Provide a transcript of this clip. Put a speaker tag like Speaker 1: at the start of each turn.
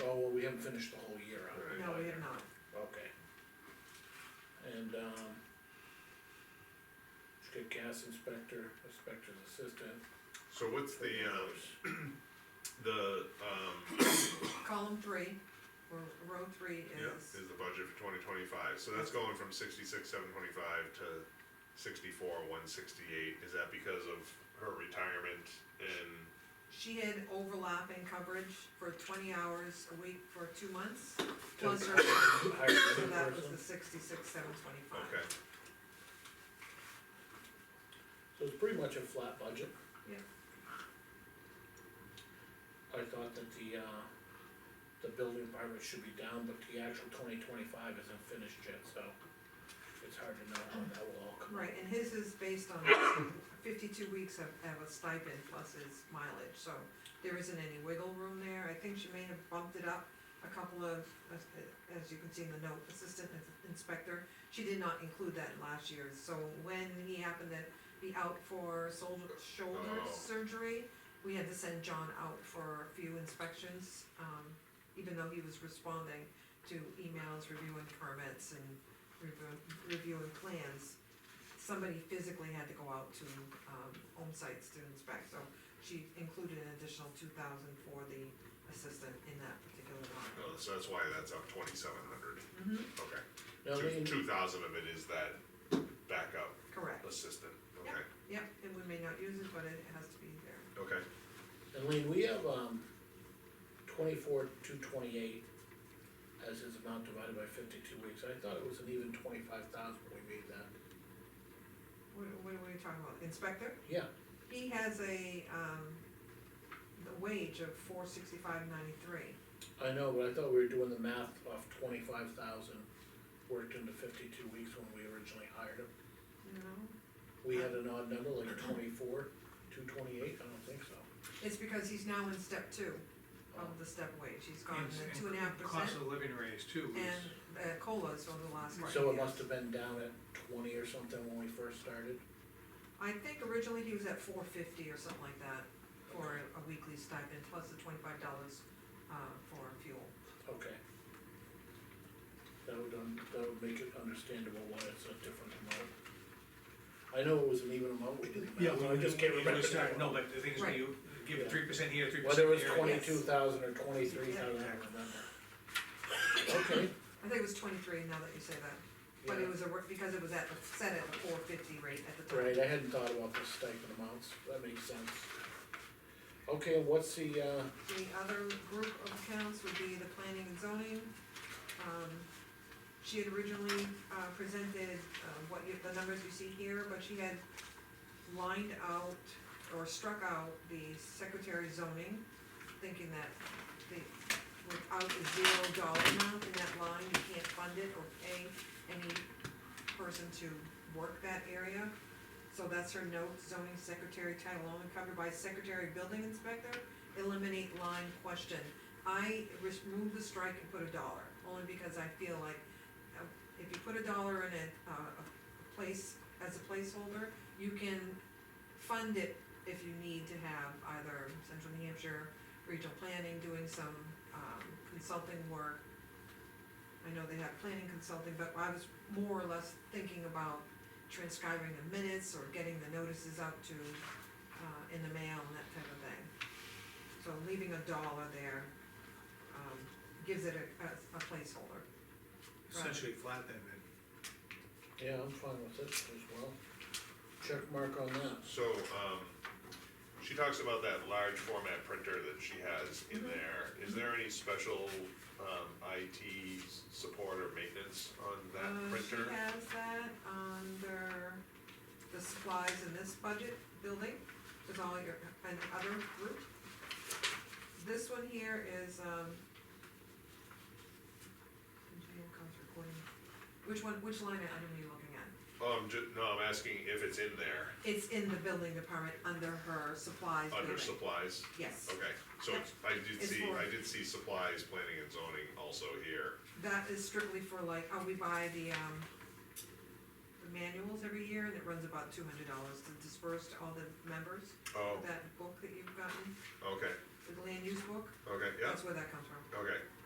Speaker 1: Oh, haven't finished the whole year out.
Speaker 2: Right.
Speaker 3: No, we have not.
Speaker 1: Okay. And, um, just get gas inspector, inspector's assistant.
Speaker 2: So what's the, um, the, um,
Speaker 3: Column three, or row three
Speaker 2: yeah,
Speaker 3: is,
Speaker 2: is the budget for twenty twenty-five, so that's going from sixty-six, seven twenty-five to sixty-four, one sixty-eight, is that because of her retirement and,
Speaker 3: she had overlapping coverage for twenty hours a week for two months, plus her,
Speaker 1: Hire
Speaker 3: so
Speaker 1: another
Speaker 3: that was the
Speaker 1: person.
Speaker 3: sixty-six, seven twenty-five.
Speaker 2: okay,
Speaker 1: So it's pretty much a flat budget.
Speaker 3: Yeah.
Speaker 1: I thought that the, uh, the building department should be down, but the actual twenty twenty-five isn't finished yet, so it's hard to know how that will all come.
Speaker 3: Right, and his is based on fifty-two weeks of, of a stipend plus his mileage, so there isn't any wiggle room there. I think she may have bumped it up a couple of, as, as you can see in the note, assistant ins- inspector. She did not include that in last year's, so when he happened to be out for shoulder, shoulder
Speaker 2: Oh.
Speaker 3: surgery, we had to send John out for a few inspections, um, even though he was responding to emails, reviewing permits and reviewing, reviewing plans. Somebody physically had to go out to, um, home sites to inspect, so she included an additional two thousand for the assistant in that particular line.
Speaker 2: Oh, so that's why that's up twenty-seven hundred,
Speaker 3: Mm-hmm,
Speaker 2: okay.
Speaker 1: Now,
Speaker 2: Two,
Speaker 1: they-
Speaker 2: two thousand of it is that backup
Speaker 3: correct,
Speaker 2: assistant,
Speaker 3: Yep.
Speaker 2: okay,
Speaker 3: yep, and we may not use it, but it has to be there.
Speaker 2: okay,
Speaker 1: And Lean, we have, um, twenty-four, two twenty-eight as his amount divided by fifty-two weeks, I thought it was an even twenty-five thousand when we made that.
Speaker 3: What, what are we talking about, inspector?
Speaker 1: Yeah,
Speaker 3: He has a, um, the wage of four sixty-five ninety-three.
Speaker 1: I know, but I thought we were doing the math off twenty-five thousand, worked into fifty-two weeks when we originally hired him.
Speaker 3: No,
Speaker 1: We had an odd number, like twenty-four, two twenty-eight, I don't think so.
Speaker 3: it's because he's now in step two
Speaker 1: Oh,
Speaker 3: of the step wage, he's gotten
Speaker 4: And-
Speaker 3: the
Speaker 4: and
Speaker 3: two and a half percent
Speaker 4: Cost of living raise too was,
Speaker 3: and uh, colas over the last couple years.
Speaker 1: So it must have been down at twenty or something when we first started.
Speaker 3: I think originally he was at four fifty or something like that for a a weekly stipend plus the twenty-five dollars, uh, for fuel.
Speaker 1: Okay. That would, un- that would make it understandable why it's a different amount. I know it was an even amount, we didn't,
Speaker 4: yeah,
Speaker 1: I just can't
Speaker 4: when you
Speaker 1: remember.
Speaker 4: start, no, but the thing is, when
Speaker 3: Right.
Speaker 4: you give
Speaker 1: Yeah.
Speaker 4: three percent here, three
Speaker 1: Whether
Speaker 4: percent there.
Speaker 1: it was
Speaker 3: Yes.
Speaker 1: twenty-two thousand or twenty-three thousand, I don't remember. Okay,
Speaker 3: I think it was twenty-three now that you say that, but it
Speaker 1: yeah,
Speaker 3: was a, re- because it was at, the set at the four fifty rate at the time.
Speaker 1: right, I hadn't thought about the stipend amounts, that makes sense. Okay, what's the, uh,
Speaker 3: The other group of accounts would be the planning and zoning. Um, She had originally uh, presented uh, what you, the numbers you see here, but she had lined out or struck out the secretary zoning, thinking that the, without the zero dollar amount in that line, you can't fund it or pay any person to work that area. So that's her note, zoning secretary title only covered by secretary building inspector, eliminate line question. I res- removed the strike and put a dollar, only because I feel like uh, if you put a dollar in a, uh, a place, as a placeholder, you can fund it if you need to have either Central New Hampshire Regional Planning doing some, um, consulting work. I know they have planning consulting, but I was more or less thinking about transcribing the minutes or getting the notices out to, uh, in the mail and that type of thing. So leaving a dollar there, um, gives it a, a- a placeholder.
Speaker 4: Essentially flat then, then.
Speaker 1: yeah, I'm fine with it as well. Check mark on that.
Speaker 2: So, um, she talks about that large format printer that she has in
Speaker 3: Mhm.
Speaker 2: there. Is there any special, um, IT s- support or maintenance on that
Speaker 3: Uh, She
Speaker 2: printer?
Speaker 3: has that under the supplies in this budget building, with all your, and other group. This one here is, um, engineer comes recording, which one, which line item are you looking at?
Speaker 2: Oh, I'm ju- no, I'm asking if it's in there,
Speaker 3: It's in the building department under her supplies
Speaker 2: under
Speaker 3: building,
Speaker 2: supplies?
Speaker 3: yes.
Speaker 2: Okay, so it's- I did
Speaker 3: It's
Speaker 2: see,
Speaker 3: for-
Speaker 2: I did see supplies, planning and zoning also here.
Speaker 3: That is strictly for like, oh, we buy the, um, the manuals every year, and it runs about two hundred dollars to disperse to all the members.
Speaker 2: Oh,
Speaker 3: that book that you've gotten,
Speaker 2: okay,
Speaker 3: the land use book,
Speaker 2: okay, yeah,
Speaker 3: that's where that comes from.
Speaker 2: okay.